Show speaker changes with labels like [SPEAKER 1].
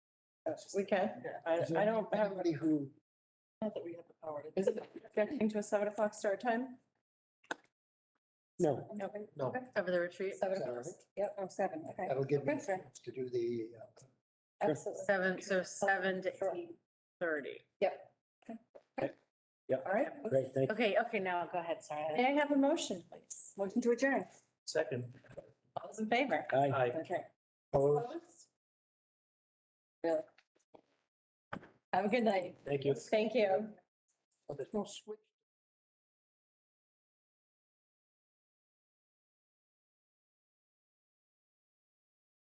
[SPEAKER 1] We can. I, I don't have,
[SPEAKER 2] Anybody who,
[SPEAKER 3] Not that we have the power to.
[SPEAKER 1] is it objecting to a seven o'clock start time?
[SPEAKER 2] no,
[SPEAKER 1] Okay.
[SPEAKER 2] no,
[SPEAKER 3] Cover the retreat.
[SPEAKER 2] Seven o'clock.
[SPEAKER 3] Yep, oh, seven, okay.
[SPEAKER 2] that'll give me a
[SPEAKER 3] Okay, sure.
[SPEAKER 2] chance to do the, uh,
[SPEAKER 3] Absolutely.
[SPEAKER 4] Seven, so seven to
[SPEAKER 3] Sure.
[SPEAKER 4] eight thirty.
[SPEAKER 3] Yep.
[SPEAKER 2] Yeah.
[SPEAKER 3] All right.
[SPEAKER 2] great, thank you.
[SPEAKER 4] Okay, okay, now go ahead, sorry.
[SPEAKER 1] May I have a motion, please?
[SPEAKER 3] Motion to adjourn.
[SPEAKER 5] Second.
[SPEAKER 1] All those in favor?
[SPEAKER 2] Aye,
[SPEAKER 5] Aye.
[SPEAKER 3] Okay.
[SPEAKER 2] opposed,
[SPEAKER 3] Really. Have a good night.
[SPEAKER 5] Thank you.
[SPEAKER 1] Thank you.
[SPEAKER 2] Oh,
[SPEAKER 3] No switch.